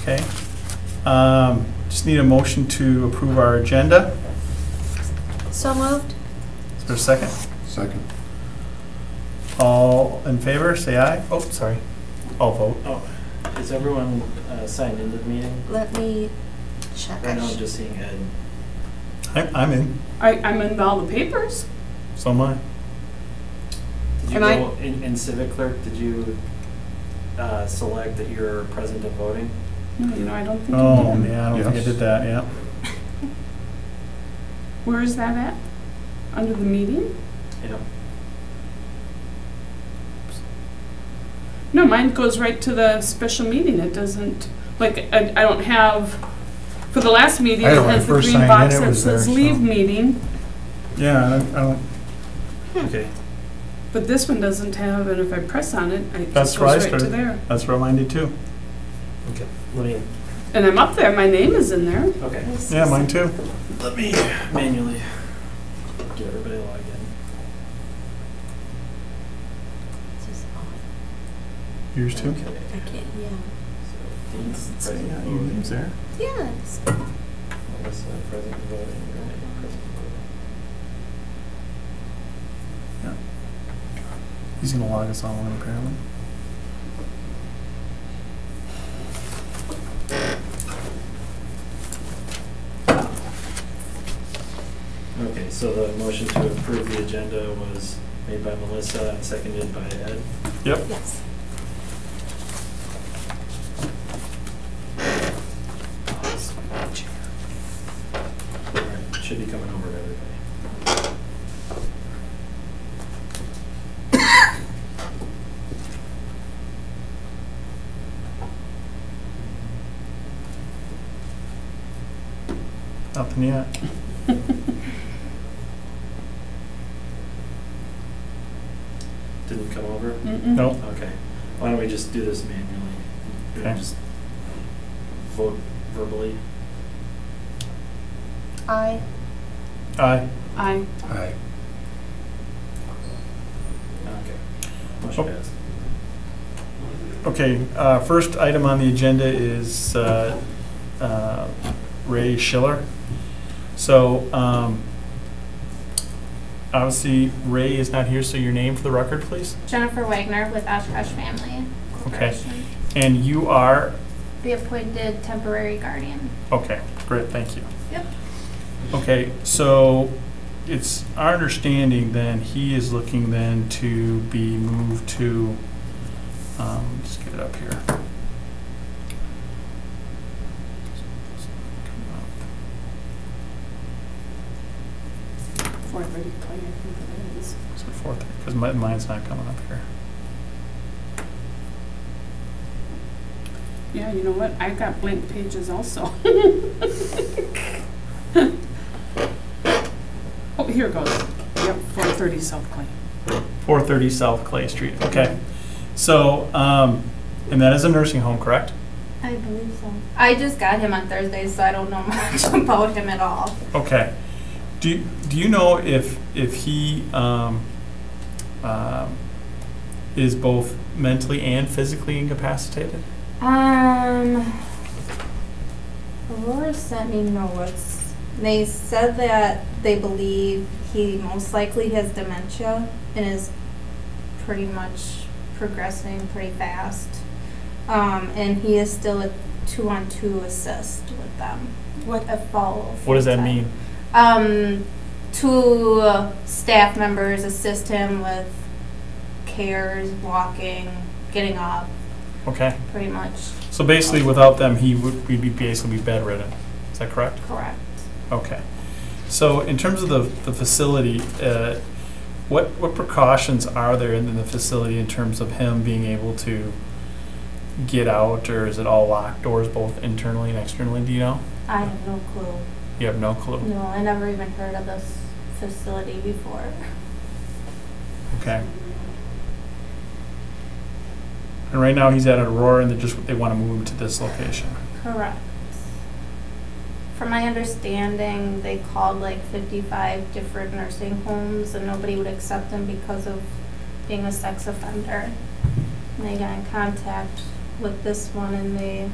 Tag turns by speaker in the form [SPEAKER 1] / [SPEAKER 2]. [SPEAKER 1] Okay. Um, Just need a motion to approve our agenda.
[SPEAKER 2] So moved?
[SPEAKER 1] Is there a second?
[SPEAKER 3] Second.
[SPEAKER 1] All in favor, say aye. Oh, sorry. All vote.
[SPEAKER 4] Oh, is everyone uh, signed into the meeting?
[SPEAKER 2] Let me check.
[SPEAKER 4] Right now, I'm just seeing Ed.
[SPEAKER 1] I'm, I'm in.
[SPEAKER 5] I, I'm in all the papers.
[SPEAKER 1] So am I.
[SPEAKER 4] Did you
[SPEAKER 5] Am I-
[SPEAKER 4] go, in in civic clerk, did you uh, select that you're present and voting?
[SPEAKER 5] No, you know, I don't think.
[SPEAKER 1] Oh, yeah, I don't think I
[SPEAKER 3] Yes.
[SPEAKER 1] did that, yeah.
[SPEAKER 5] Where is that at? Under the meeting?
[SPEAKER 4] You know,
[SPEAKER 5] No, mine goes right to the special meeting. It doesn't, like, I, I don't have, for the last meeting,
[SPEAKER 3] I
[SPEAKER 5] it
[SPEAKER 3] had it when I
[SPEAKER 5] has the
[SPEAKER 3] first
[SPEAKER 5] green
[SPEAKER 3] signed in,
[SPEAKER 5] box
[SPEAKER 3] it
[SPEAKER 5] that
[SPEAKER 3] was there,
[SPEAKER 5] says leave
[SPEAKER 3] so.
[SPEAKER 5] meeting,
[SPEAKER 1] Yeah, I don't- I don't,
[SPEAKER 4] okay.
[SPEAKER 5] but this one doesn't have, and if I press on it, it
[SPEAKER 1] That's
[SPEAKER 5] just
[SPEAKER 1] where I
[SPEAKER 5] goes right to
[SPEAKER 1] started.
[SPEAKER 5] there.
[SPEAKER 1] that's where mine did too.
[SPEAKER 4] Let me,
[SPEAKER 5] And I'm up there. My name is in there.
[SPEAKER 4] okay.
[SPEAKER 1] Yeah, mine too.
[SPEAKER 4] Let me manually get everybody logged in.
[SPEAKER 1] Yours too.
[SPEAKER 4] Okay.
[SPEAKER 2] I can't, yeah.
[SPEAKER 4] So Dean's
[SPEAKER 1] Yeah,
[SPEAKER 4] present and
[SPEAKER 1] your name's there.
[SPEAKER 4] voting.
[SPEAKER 2] Yeah. it's-
[SPEAKER 4] Melissa, present and voting. Renee, present and voting.
[SPEAKER 1] He's gonna log us all in apparently.
[SPEAKER 4] Okay, so the motion to approve the agenda was made by Melissa and seconded by Ed.
[SPEAKER 2] Yes.
[SPEAKER 4] All right, Should be coming over to everybody.
[SPEAKER 1] Nothing yet.
[SPEAKER 4] Didn't come over?
[SPEAKER 5] Mm-mm.
[SPEAKER 1] Nope.
[SPEAKER 4] Okay. Why don't we just do this manually? You know,
[SPEAKER 1] Okay.
[SPEAKER 4] Just vote verbally.
[SPEAKER 2] I,
[SPEAKER 1] Aye.
[SPEAKER 5] I,
[SPEAKER 3] Aye.
[SPEAKER 4] Okay. Motion
[SPEAKER 1] Oh.
[SPEAKER 4] passed.
[SPEAKER 1] Okay, uh, first item on the agenda is uh, uh, Ray Schiller. So um, obviously Ray is not here, so your name for the record, please?
[SPEAKER 6] Jennifer Wagner with Oshkosh Family
[SPEAKER 1] Okay.
[SPEAKER 6] Corporation.
[SPEAKER 1] And you are,
[SPEAKER 6] Be appointed temporary guardian.
[SPEAKER 1] okay, great, thank you.
[SPEAKER 6] Yep.
[SPEAKER 1] Okay, so it's our understanding then, he is looking then to be moved to, um, just get it up here.
[SPEAKER 5] four thirty play, I think it is.
[SPEAKER 1] So forth, because mine's not coming up here.
[SPEAKER 5] Yeah, you know what? I've got blank pages also. Oh, here it goes. Yep, four thirty South Clay.
[SPEAKER 1] 430 South Clay Street, okay. So, um, and that is a nursing home, correct?
[SPEAKER 6] I believe so. I just got him on Thursday, so I don't know much about him at all.
[SPEAKER 1] Okay. Do, do you know if, if he um, um, is both mentally and physically incapacitated?
[SPEAKER 6] Um, Aurora sent me notes. They said that they believe he most likely has dementia and is pretty much progressing pretty fast. Um, and he is still a two-on-two assist with them.
[SPEAKER 5] What
[SPEAKER 6] A follow.
[SPEAKER 1] What does that
[SPEAKER 6] full-time.
[SPEAKER 1] mean?
[SPEAKER 6] Um, two uh, staff members assist him with cares, walking, getting up,
[SPEAKER 1] Okay,
[SPEAKER 6] pretty much.
[SPEAKER 1] so basically without them, he would, we'd be basically be bedridden, is that correct?
[SPEAKER 6] Correct.
[SPEAKER 1] Okay. So in terms of the, the facility, uh, what, what precautions are there in the facility in terms of him being able to get out, or is it all locked doors both internally and externally, do you know?
[SPEAKER 6] I have no clue.
[SPEAKER 1] You have no clue?
[SPEAKER 6] No, I never even heard of this facility before.
[SPEAKER 1] Okay. And right now, he's at Aurora, and they just, they want to move him to this location.
[SPEAKER 6] Correct. From my understanding, they called like 55 different nursing homes and nobody would accept him because of being a sex offender. And they got in contact with this one and they